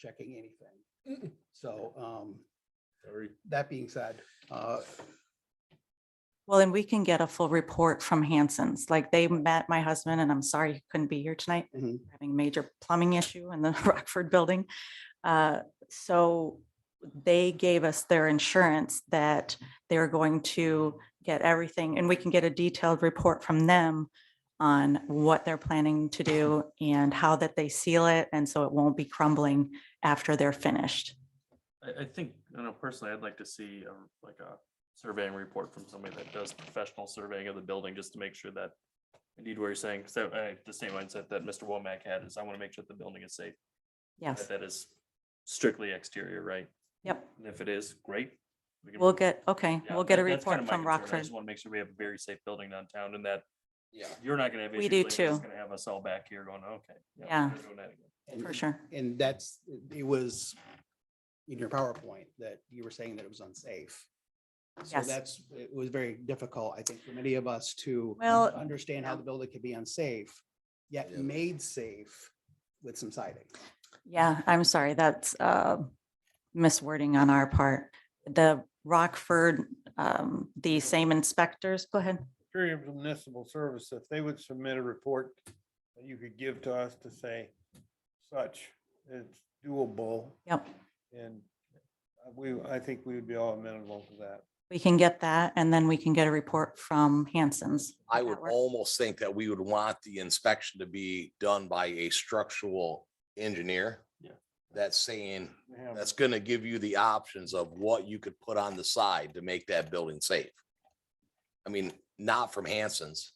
checking anything. Mm-mm. So um, Sorry. that being said, uh, Well, and we can get a full report from Hanson's, like they met my husband and I'm sorry he couldn't be here tonight. Mhm. We're Having a major plumbing issue in the Rockford building. Uh, So they gave us their insurance that they're going to get everything and we can get a detailed report from them on what they're planning to do and how that they seal it. And so it won't be crumbling after they're finished. I, I think, I know personally, I'd like to see a, like a surveying report from somebody that does professional surveying of the building, just to make sure that indeed what you're saying, so I, the same mindset that Mr. Womack had is I want to make sure the building is safe. Yes, that That is strictly exterior, right? yep. And if it is, great. we can- We'll get, okay, Yeah, we'll get a that- that's kinda report my from concern. I Rockford. just want to make sure we have a very safe building downtown and that yeah. you're not going to have. We issues do later. It's too. Going to have us all back here going, okay. Yeah. we're doing that again." and- For sure. And that's, it was in your PowerPoint that you were saying that it was unsafe. So Yes. that's, it was very difficult, I think, for many of us to Well, understand how the building could be unsafe, yet made safe with some siding. Yeah, I'm sorry, that's uh, miswording on our part. The Rockford, um, the same inspectors, go ahead. Superior Municipal Service, if they would submit a report that you could give to us to say such, it's doable Yep, and we, I think we would be all amenable to that. we can get that and then we can get a report from Hanson's. I Would would that work? almost think that we would want the inspection to be done by a structural engineer. Yeah. That's saying, We Oh. have- that's gonna give you the options of what you could put on the side to make that building safe. I mean, not from Hanson's.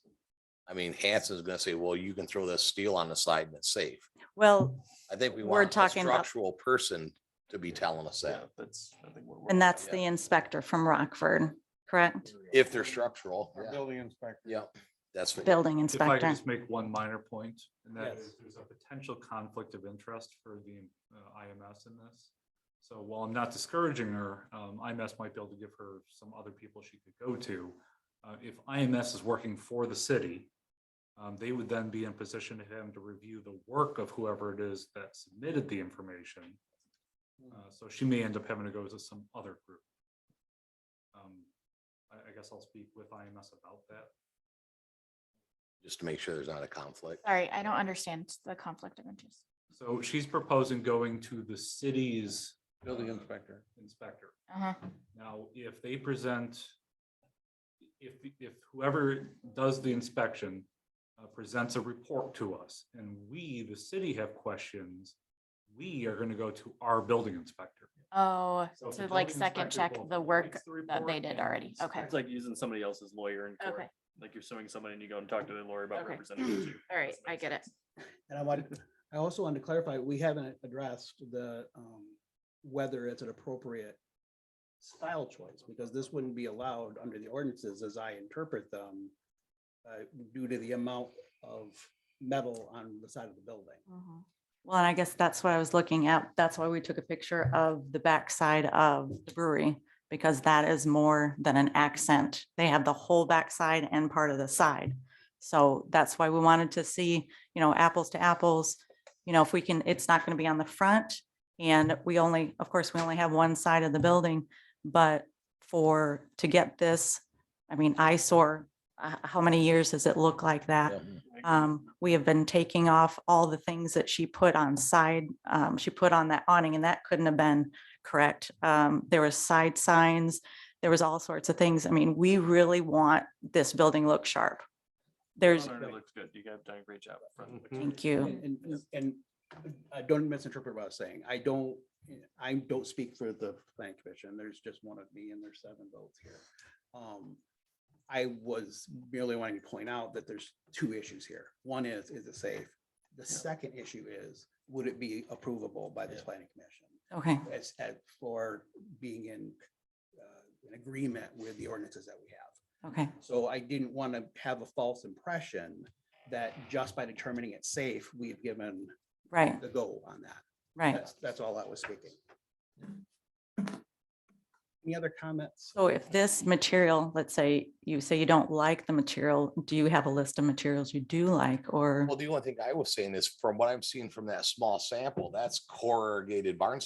I mean, Hanson's gonna say, well, you can throw this steel on the side and it's safe. Well, I think we We're want a talking about- structural person to be telling us Yeah, that, That's, I think. what we're- and that's yeah. the inspector from Rockford, correct? if they're structural. Our yeah, building inspector. Yeah, that's. what- Building If I could inspector. just make one minor point, and that Yes. is there's a potential conflict of interest for the uh, IMS in this. So while I'm not discouraging her, um, IMS might be able to give her some other people she could go to. Uh, If IMS is working for the city, um, they would then be in position to him to review the work of whoever it is that submitted the information. Uh, So she may end up having to go to some other group. Um, I I guess I'll speak with IMS about that. Just to make sure there's not a conflict. Sorry, I don't understand the conflict of interest. So she's proposing going to the city's Building inspector. inspector. Uh-huh. Now, if they present, if, if whoever does the inspection uh, presents a report to us and we, the city, have questions, we are going to go to our building inspector. Oh, So if to the like building second inspector check both the work writes the that they report did and already. Okay. inspects It's like using somebody else's lawyer in court. Okay. Like you're suing somebody and you go and talk to their lawyer about Okay. representing you. All right, Doesn't I make get it. sense. And I wanted, I also wanted to clarify, we haven't addressed the, um, whether it's an appropriate style choice, because this wouldn't be allowed under the ordinances as I interpret them uh, due to the amount of metal on the side of the building. Mhm. Well, and I guess that's what I was looking at. That's why we took a picture of the backside of the brewery, because that is more than an accent. They have the whole backside and part of the side. So that's why we wanted to see, you know, apples to apples, you know, if we can, it's not going to be on the front. And we only, of course, we only have one side of the building, but for, to get this, I mean, eyesore, h- how many years does it look like that? Yeah. Um, we have been taking off all the things that she put on side, um, she put on that awning and that couldn't have been correct. Um, there was side signs, there was all sorts of things. I mean, we really want this building look sharp. There's, No, no, no, It looks good. You guys done a great job. Fran. Mm-hmm. thank you. And, and- and I don't misinterpret what I was saying. I don't, I don't speak for the planning commission. There's just one of me and there's seven votes here. Um, I was merely wanting to point out that there's two issues here. One is, is it safe? The second issue is, would it be approvable by this planning commission Okay, as, as for being in uh, in agreement with the ordinances that we have? okay. So I didn't want to have a false impression that just by determining it safe, we've given Right, the go on that. right. That's, that's all I was speaking. Any other comments? So if this material, let's say you say you don't like the material, do you have a list of materials you do like or? Well, the only thing I was saying is from what I'm seeing from that small sample, that's corrugated barn